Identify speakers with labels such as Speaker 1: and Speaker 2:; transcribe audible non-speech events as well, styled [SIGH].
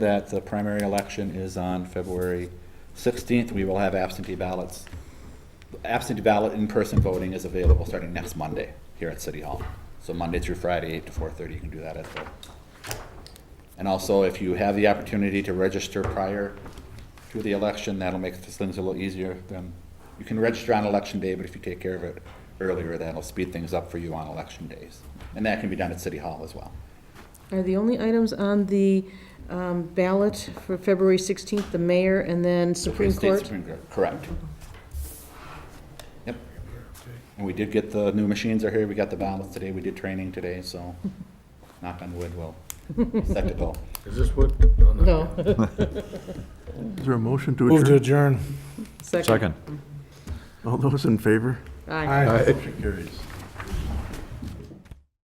Speaker 1: that the primary election is on February 16th. We will have absentee ballots. Absentee ballot in-person voting is available starting next Monday here at City Hall. So Monday through Friday, 8 to 4:30, you can do that at the and also, if you have the opportunity to register prior to the election, that'll make things a little easier. Then You can register on election day, but if you take care of it earlier, that'll speed things up for you on election days. And that can be done at City Hall as well.
Speaker 2: Are the only items on the um, ballot for February 16th, the mayor and then Supreme
Speaker 1: State
Speaker 2: Court? Uh-huh.
Speaker 1: Supreme Court, Correct. Yep. And we did get the new machines are here, we got the ballots today, we did training today,
Speaker 2: [LAUGHS]
Speaker 1: so knock on wood, we'll set to go.
Speaker 3: Is this Oh, what?
Speaker 2: No,
Speaker 4: Is there a motion to
Speaker 5: Move to
Speaker 4: adjourn?
Speaker 5: adjourn.
Speaker 2: second.
Speaker 6: Second.
Speaker 4: All those in favor?
Speaker 2: Aye.
Speaker 5: Aye.
Speaker 4: Motion carries.